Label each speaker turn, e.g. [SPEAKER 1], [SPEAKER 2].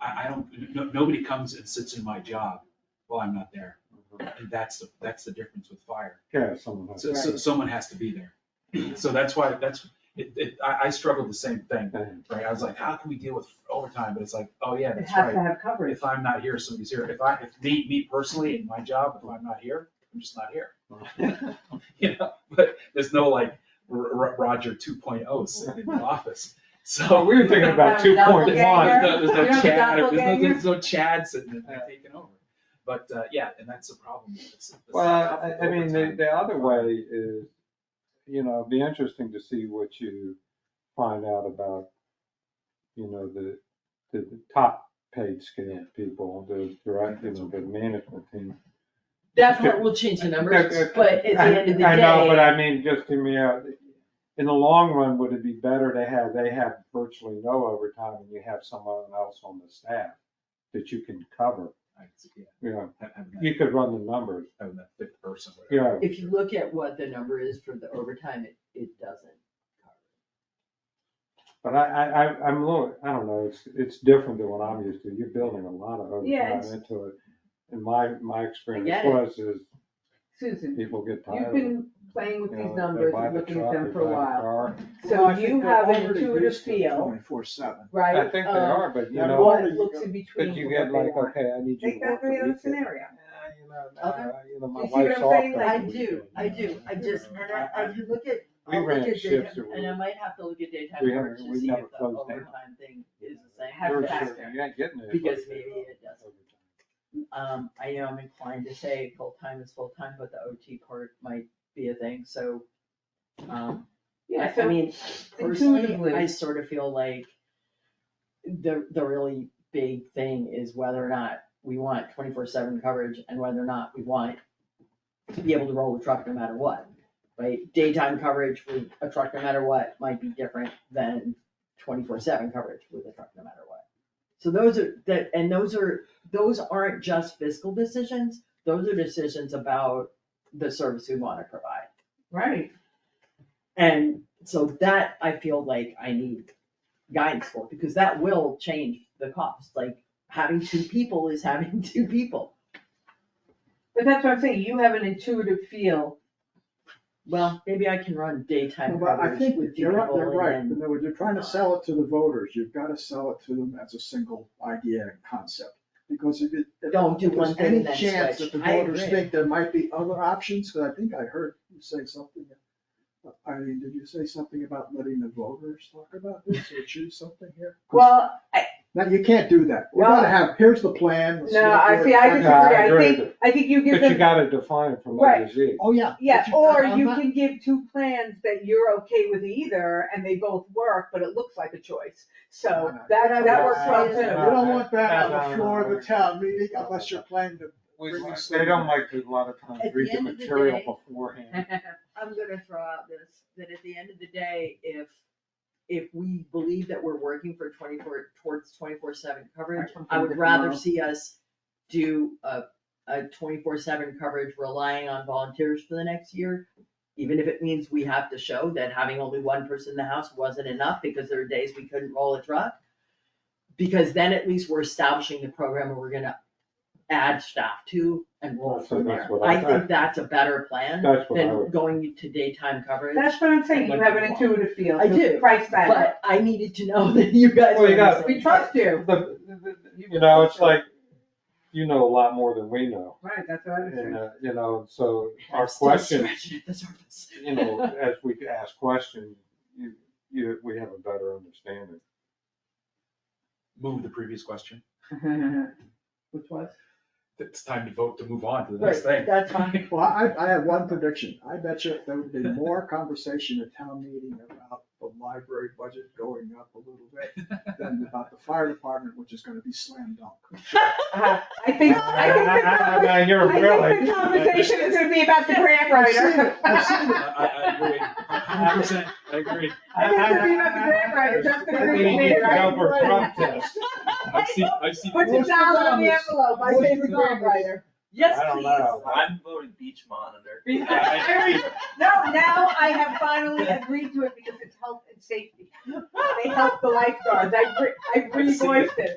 [SPEAKER 1] I, I don't, no, nobody comes and sits in my job while I'm not there. And that's, the that's the difference with fire.
[SPEAKER 2] Yeah, someone has.
[SPEAKER 1] So, so someone has to be there. So that's why, that's, it, it, I, I struggled the same thing, right? I was like, how can we deal with overtime? But it's like, oh yeah,
[SPEAKER 3] It
[SPEAKER 1] that's
[SPEAKER 3] has
[SPEAKER 1] right.
[SPEAKER 3] to have coverage.
[SPEAKER 1] If I'm not here, somebody's here. If I, if me, me personally in my job, if I'm not here, I'm just not here. You know, but there's no like R- R- Roger 2.0 sitting in the office.
[SPEAKER 2] Oh,
[SPEAKER 1] So
[SPEAKER 2] we were thinking about two point
[SPEAKER 1] there's
[SPEAKER 2] one.
[SPEAKER 1] no, there's no
[SPEAKER 3] You're
[SPEAKER 1] Chad,
[SPEAKER 3] the
[SPEAKER 1] there's no,
[SPEAKER 3] doppelganger?
[SPEAKER 1] there's no Chad sitting in there
[SPEAKER 2] Yeah.
[SPEAKER 1] taking over. But, uh, yeah, and that's the problem. It's- it's-
[SPEAKER 2] Well, I, I mean, the,
[SPEAKER 1] overtime.
[SPEAKER 2] the other way is, you know, it'd be interesting to see what you find out about, you know, the, the top paid scale people, the direct, you know, the management team.
[SPEAKER 3] That's what will change the numbers, but at the end of the day.
[SPEAKER 2] I know, but I mean, just in the, in the long run, would it be better to have, they have virtually no overtime and you have someone else on the staff that you can cover,
[SPEAKER 1] I- yeah,
[SPEAKER 2] you know,
[SPEAKER 1] ha- Having that-
[SPEAKER 2] you could run the numbers,
[SPEAKER 1] having that fifth person. whatever.
[SPEAKER 2] you know.
[SPEAKER 3] If you look at what the number is for the overtime, it, it doesn't.
[SPEAKER 2] But I, I, I- I'm a little, I don't know, it's, it's different than what I'm used to. You're building a lot of
[SPEAKER 4] Yeah,
[SPEAKER 2] overtime
[SPEAKER 4] it's-
[SPEAKER 2] into it. And my, my experience
[SPEAKER 3] get it.
[SPEAKER 2] was is
[SPEAKER 4] Susan,
[SPEAKER 2] people get tired.
[SPEAKER 4] you've
[SPEAKER 2] of it,
[SPEAKER 4] been playing with
[SPEAKER 2] you
[SPEAKER 4] these
[SPEAKER 2] know, they
[SPEAKER 4] numbers
[SPEAKER 2] buy
[SPEAKER 4] and
[SPEAKER 2] the
[SPEAKER 4] looking at
[SPEAKER 2] truck,
[SPEAKER 4] them
[SPEAKER 2] they
[SPEAKER 4] for a
[SPEAKER 2] buy the
[SPEAKER 4] while.
[SPEAKER 2] car.
[SPEAKER 4] So you have an intuitive feel,
[SPEAKER 5] Twenty-four seven.
[SPEAKER 4] right?
[SPEAKER 2] I think they
[SPEAKER 4] of
[SPEAKER 2] are, but you
[SPEAKER 5] of
[SPEAKER 2] know,
[SPEAKER 4] What looks in between.
[SPEAKER 2] but you
[SPEAKER 4] what
[SPEAKER 2] get
[SPEAKER 4] they
[SPEAKER 2] like,
[SPEAKER 4] want.
[SPEAKER 2] okay, I need you
[SPEAKER 4] Take
[SPEAKER 2] to work
[SPEAKER 4] that
[SPEAKER 2] the
[SPEAKER 4] three
[SPEAKER 2] weekend.
[SPEAKER 4] other scenario.
[SPEAKER 2] Yeah, you know,
[SPEAKER 3] Okay.
[SPEAKER 2] uh, You know, my
[SPEAKER 4] You see what
[SPEAKER 2] wife's
[SPEAKER 4] I'm
[SPEAKER 2] off.
[SPEAKER 4] saying?
[SPEAKER 2] on
[SPEAKER 3] I
[SPEAKER 2] the
[SPEAKER 3] do, I do, I just, and I, I can look at,
[SPEAKER 2] We
[SPEAKER 3] I'll look
[SPEAKER 2] ran
[SPEAKER 3] at
[SPEAKER 2] shifts
[SPEAKER 3] daytime,
[SPEAKER 2] that
[SPEAKER 3] and I
[SPEAKER 2] were-
[SPEAKER 3] might have to look at daytime
[SPEAKER 2] we
[SPEAKER 3] hours
[SPEAKER 2] haven't-
[SPEAKER 3] to
[SPEAKER 2] we
[SPEAKER 3] see
[SPEAKER 2] never
[SPEAKER 3] if the
[SPEAKER 2] closed down.
[SPEAKER 3] overtime thing is the same.
[SPEAKER 4] Have
[SPEAKER 2] You're
[SPEAKER 4] faster.
[SPEAKER 2] sure- You're not getting it.
[SPEAKER 3] Because maybe it doesn't. Um, I know I'm inclined to say full-time is full-time, but the OT part might be a thing, so, um,
[SPEAKER 4] Yeah,
[SPEAKER 3] I, I
[SPEAKER 4] so
[SPEAKER 3] mean, personally,
[SPEAKER 4] intuitively-
[SPEAKER 3] I sort of feel like the, the really big thing is whether or not we want twenty-four seven coverage and whether or not we want to be able to roll the truck no matter what, right? Daytime coverage with a truck no matter what might be different than twenty-four seven coverage with a truck no matter what. So those are, that, and those are, those aren't just fiscal decisions, those are decisions about the service we wanna provide.
[SPEAKER 4] Right,
[SPEAKER 3] And so that I feel like I need guidance for, because that will change the cost, like having two people is having two people.
[SPEAKER 4] but that's what I'm saying, you have an intuitive feel.
[SPEAKER 3] Well, maybe I can run daytime
[SPEAKER 5] Well, I
[SPEAKER 3] coverage
[SPEAKER 5] think
[SPEAKER 3] with two
[SPEAKER 5] you're right,
[SPEAKER 3] people
[SPEAKER 5] you're right,
[SPEAKER 3] and
[SPEAKER 5] in
[SPEAKER 3] then,
[SPEAKER 5] other words, you're trying to sell it to the voters, you've gotta sell it to them as a single idea and concept. Because if it. if
[SPEAKER 3] Don't do
[SPEAKER 5] there's
[SPEAKER 3] one thing and then
[SPEAKER 5] Any chance
[SPEAKER 3] switch.
[SPEAKER 5] that the
[SPEAKER 3] I
[SPEAKER 5] voters
[SPEAKER 3] agree.
[SPEAKER 5] think there might be other options, cause I think I heard you say something. I mean, did you say something about letting the voters talk about this or choose something here? 'Cause
[SPEAKER 4] Well, I,
[SPEAKER 5] Now, you can't do that, we
[SPEAKER 4] Well-
[SPEAKER 5] gotta have, here's the plan. the
[SPEAKER 4] no,
[SPEAKER 5] select
[SPEAKER 4] I
[SPEAKER 5] board-
[SPEAKER 4] see, I
[SPEAKER 2] No,
[SPEAKER 4] disagree,
[SPEAKER 2] I
[SPEAKER 4] I
[SPEAKER 2] agree
[SPEAKER 4] think,
[SPEAKER 2] with
[SPEAKER 4] I think you give
[SPEAKER 2] But you
[SPEAKER 4] them,
[SPEAKER 2] gotta define it from A
[SPEAKER 4] Right.
[SPEAKER 2] to Z.
[SPEAKER 5] Oh, yeah.
[SPEAKER 4] yeah,
[SPEAKER 5] but you-
[SPEAKER 4] or
[SPEAKER 5] I'm
[SPEAKER 4] you
[SPEAKER 5] not-
[SPEAKER 4] can give two plans that you're okay with either, and they both work, but it looks like a choice. So
[SPEAKER 5] No, no.
[SPEAKER 4] that, that
[SPEAKER 3] Well,
[SPEAKER 4] works
[SPEAKER 3] I-
[SPEAKER 4] well
[SPEAKER 5] You
[SPEAKER 4] too.
[SPEAKER 2] No,
[SPEAKER 5] don't want that
[SPEAKER 2] no,
[SPEAKER 5] on
[SPEAKER 2] no,
[SPEAKER 5] the floor
[SPEAKER 2] no.
[SPEAKER 5] of the town meeting unless you're planning to
[SPEAKER 2] We-
[SPEAKER 5] Bring us
[SPEAKER 2] They
[SPEAKER 5] some-
[SPEAKER 2] don't like to a lot of times
[SPEAKER 3] At the
[SPEAKER 2] read the
[SPEAKER 3] end of the
[SPEAKER 2] material
[SPEAKER 3] day-
[SPEAKER 2] beforehand.
[SPEAKER 3] I'm gonna throw out this, that at the end of the day, if, if we believe that we're working for twenty-four, towards twenty-four seven coverage,
[SPEAKER 4] I can
[SPEAKER 3] I
[SPEAKER 4] think
[SPEAKER 3] would
[SPEAKER 4] of
[SPEAKER 3] rather
[SPEAKER 4] tomorrow.
[SPEAKER 3] see us do a, a twenty-four seven coverage relying on volunteers for the next year. Even if it means we have to show that having only one person in the house wasn't enough because there are days we couldn't roll a truck. Because then at least we're establishing the program where we're gonna add staff to and roll
[SPEAKER 2] So
[SPEAKER 3] from there.
[SPEAKER 2] that's what I
[SPEAKER 3] I think that's a better plan
[SPEAKER 2] That's what I
[SPEAKER 3] than
[SPEAKER 2] would.
[SPEAKER 3] going to daytime coverage.
[SPEAKER 4] That's what I'm saying, you have an intuitive feel.
[SPEAKER 3] I
[SPEAKER 4] to
[SPEAKER 3] do,
[SPEAKER 4] Price that,
[SPEAKER 3] But I needed to know that you guys
[SPEAKER 2] Well,
[SPEAKER 3] were
[SPEAKER 2] you
[SPEAKER 3] the
[SPEAKER 2] got-
[SPEAKER 3] same.
[SPEAKER 4] we trust you.
[SPEAKER 2] The- the- the- You know, it's like, you know a lot more than we know.
[SPEAKER 4] Right, that's what I was
[SPEAKER 2] And,
[SPEAKER 4] saying.
[SPEAKER 2] uh, you know, so our
[SPEAKER 3] I'm still
[SPEAKER 2] question,
[SPEAKER 3] scratching at the surface.
[SPEAKER 2] you know, as we ask questions, you, you, we have a better understanding.
[SPEAKER 1] Move the previous question.
[SPEAKER 4] Which was?
[SPEAKER 1] It's time to vote to move on to the next
[SPEAKER 3] Right,
[SPEAKER 1] thing.
[SPEAKER 3] That's fine.
[SPEAKER 5] Well, I, I have one prediction. I bet you there would be more conversation at town meeting about the library budget going up a little bit than about the fire department, which is gonna be slam dunk.
[SPEAKER 4] Uh, I think, I think the conversation
[SPEAKER 2] Now, you're
[SPEAKER 4] I think
[SPEAKER 2] really.
[SPEAKER 4] the conversation is gonna be about the grant
[SPEAKER 5] I've seen
[SPEAKER 4] writer.
[SPEAKER 5] it, I've seen
[SPEAKER 1] I, I I agree, hundred percent, I agree.
[SPEAKER 4] I think it's gonna be about the grant writer, just
[SPEAKER 2] We
[SPEAKER 4] gonna agree with
[SPEAKER 2] need
[SPEAKER 4] me,
[SPEAKER 2] to go
[SPEAKER 4] right?
[SPEAKER 2] for Trump test.
[SPEAKER 1] I've seen, I've seen.
[SPEAKER 4] Put your dollar on the envelope, I say the grant writer.
[SPEAKER 3] Yes,
[SPEAKER 2] I don't
[SPEAKER 3] please.
[SPEAKER 2] know.
[SPEAKER 6] I'm voting beach monitor.
[SPEAKER 4] I re- No, now I have finally agreed to it because it's health and safety. They help the lifeguards, I, re- I
[SPEAKER 1] I've seen it.
[SPEAKER 4] revoiced it,